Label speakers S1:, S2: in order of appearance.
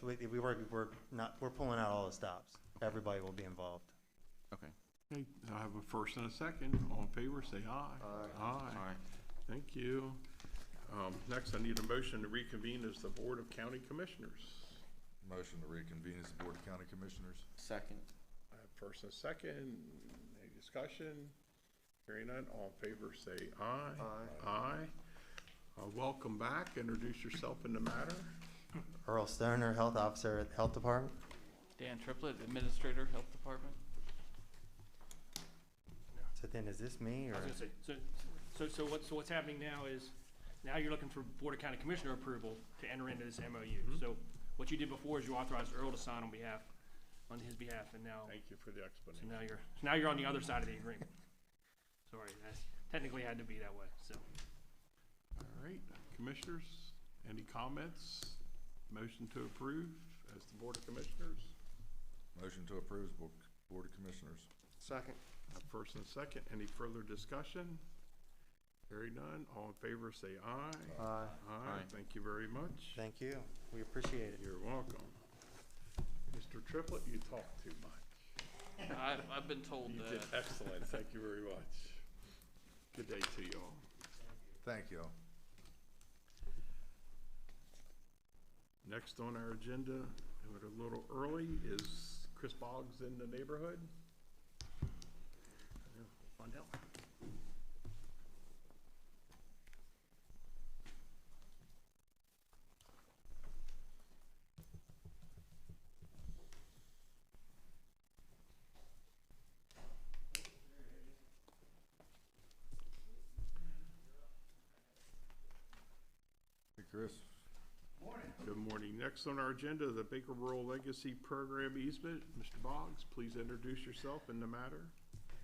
S1: we, we were, we're not, we're pulling out all the stops. Everybody will be involved.
S2: Okay,
S3: Okay, I have a first and a second. All in favor, say aye.
S2: all right.
S3: Thank you. Um, next, I need a motion to reconvene as the Board of County Commissioners.
S4: Motion to reconvene as the Board of County Commissioners.
S2: Second,
S3: I have First and second, any discussion? Hearing none, all in favor, say aye. Aye. Aye. Uh, welcome back. Introduce yourself in the matter.
S1: Earl Stoner, Health Officer at the Health Department.
S5: Dan Triplett, Administrator, Health Department.
S1: So then, is this me or?
S6: I was gonna say, so, so, so what's, so what's happening now is, now you're looking for Board of County Commissioner approval to enter into this MOU. So what you did before is you authorized Earl to sign on behalf, on his behalf, and now,
S3: Thank you for the
S6: so
S3: explanation.
S6: now you're, so now you're on the other side of the agreement. Sorry, that's technically had to be that way, so.
S3: All right, Commissioners, any comments? Motion to approve as the Board of Commissioners?
S4: Motion to approve as Bo- Board of Commissioners.
S2: second.
S3: Have First and second, any further discussion? Hearing none, all in favor say aye.
S1: Uh,
S3: Aye,
S2: Aye.
S3: thank you very much.
S1: thank you. We appreciate it.
S3: You're welcome. Mr. Triplett, you talk too much.
S5: I, I've been told
S3: You did
S5: that.
S3: excellent, thank you very much. Good day to you all.
S4: Thank you. all.
S3: Next on our agenda, and a little early, is Chris Boggs in the neighborhood? Find out.
S4: Hey, Chris.
S3: Good morning. Next on our agenda, the Baker Rural Legacy Program easement. Mr. Boggs, please introduce yourself and the matter.